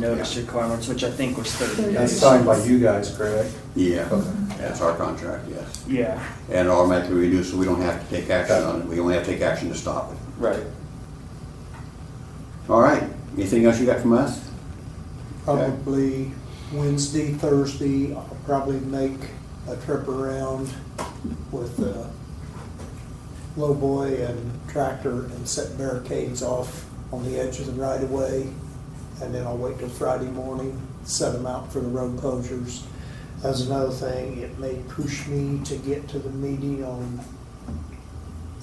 notice requirements, which I think was thirty That's days. signed by you guys, correct? Yeah, Okay. that's our contract, yes. Yeah, And automatically reduced, so we don't have to take action on it. We only have to take action to stop it. right. All right, anything else you got from us? Probably Wednesday, Thursday, I'll probably make a trip around with uh, lowboy and tractor and set barricades off on the edge of the right of way. And then I'll wait till Friday morning, set them out for the road closures. That's another thing, it may push me to get to the meeting on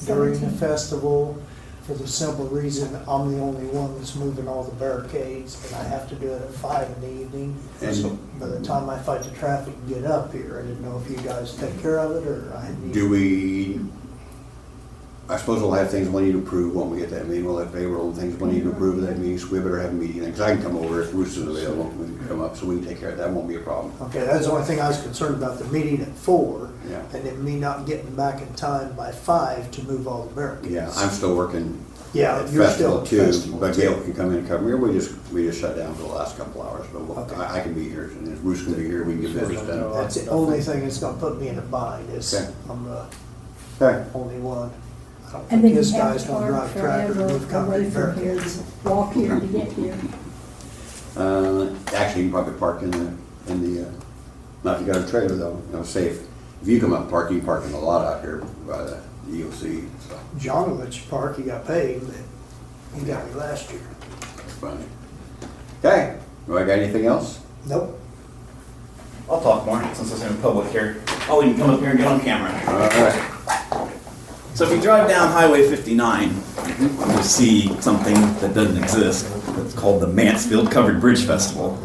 during the Seventeenth. festival for the simple reason I'm the only one that's moving all the barricades and I have to do it at five in the evening. And- So by the time I fight the traffic and get up here, I didn't know if you guys take care of it or I need. Do we, I suppose we'll have things we need to approve when we get that meeting. We'll have payroll and things we need to approve at that meeting, so we better have a meeting. Because I can come over if Bruce is available, we can come up, so we can take care of that. Won't be a problem. Okay, that's the only thing I was concerned about, the meeting at four. Yeah. And then me not getting back in time by five to move all the barricades. Yeah, I'm still working Yeah, at Uh, you're still festival at too, festival but too. Gail can come in and cover. We just, we just shut down for the last couple hours, but we'll- I I can be here. And if Bruce can be here, we can get business done. That's the only thing that's gonna put me in a bind is Okay. I'm the Okay. only one. I don't And think then you this have guy's to gonna park drive tractor, forever move concrete away from here, barricades. to walk here to get here. Uh, actually, you can probably park in the, in the, uh, not if you got a trailer though, you know, safe. If you come up and park, you can park in the lot out here by the EOC, so John will let you park, he got paid, but he got me last year. it's funny. Okay, do I got anything else? Nope. I'll talk more since it's in public here. Oh, we can come up here and get on camera. All right, So if you drive down Highway 59, you'll see something that doesn't exist. It's called the Mansfield Covered Bridge Festival.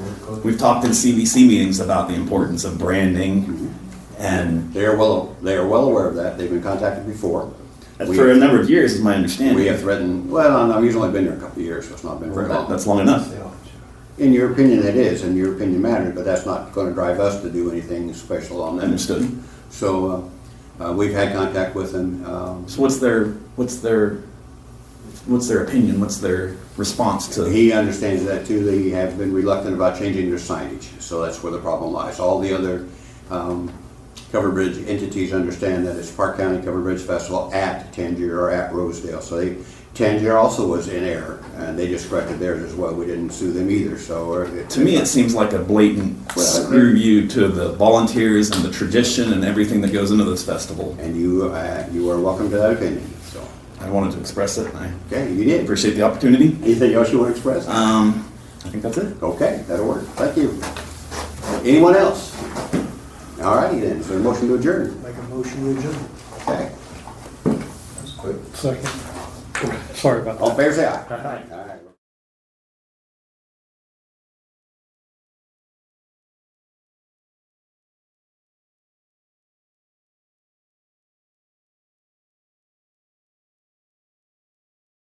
We've talked in CBC meetings about the importance of branding and they are well, they are well aware of that, they've been contacted before. We for a have- number of years, is my We have understanding. threatened, well, no, he's only been here a couple of years, so it's not been very long. That's long enough. In your opinion, it is, in your opinion matters, but that's not gonna drive us to do anything special on that. Understood. So, uh, uh, we've had contact with them, um, So what's their, what's their, what's their opinion? What's their response to? He understands that too, they have been reluctant about changing their signage, so that's where the problem lies. All the other um, covered bridge entities understand that it's Park County Covered Bridge Festival at Tangier or at Rosedale, so they, Tangier also was in error, and they just corrected theirs as well, we didn't sue them either, so. uh, it- To me, it seems like a blatant Well, I agree. screw you to the volunteers and the tradition and everything that goes into this festival. And you, uh, you are welcome to that opinion, so, I wanted to express it, and I okay, you did. appreciate the opportunity. Anything else you want to express? Um, I think that's it. Okay, that'll work, thank you. Anyone else? All righty then, so a motion to adjourn, Make a motion, would you? okay. Second. Sorry about that. 哦啊 All fair say aye. Aye.